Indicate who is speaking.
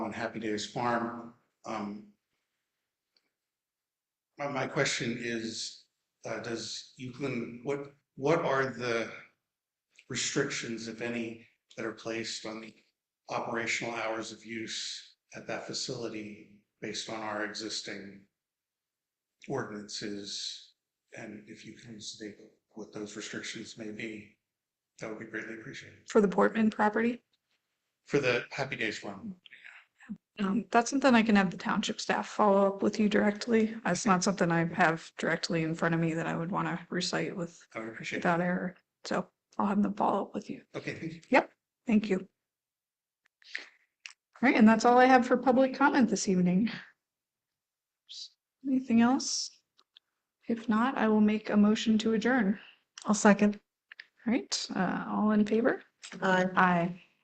Speaker 1: on Happy Days Farm. Um, My, my question is, uh, does Euclid, what, what are the restrictions, if any, that are placed on the operational hours of use at that facility based on our existing ordinances? And if you can state what those restrictions may be, that would be greatly appreciated.
Speaker 2: for the Portman property.
Speaker 1: For the Happy Days Farm,
Speaker 2: Um, that's something I can have the township staff follow up with you directly. That's not something I have directly in front of me that I would want to recite with,
Speaker 1: I would appreciate that.
Speaker 2: without error. So I'll have them follow up with you.
Speaker 1: Okay, thank you.
Speaker 2: Thank you. All right, and that's all I have for public comment this evening. Anything else? If not, I will make a motion to adjourn.
Speaker 3: I'll second.
Speaker 2: All right, uh, all in favor?
Speaker 3: Aye.
Speaker 2: Aye.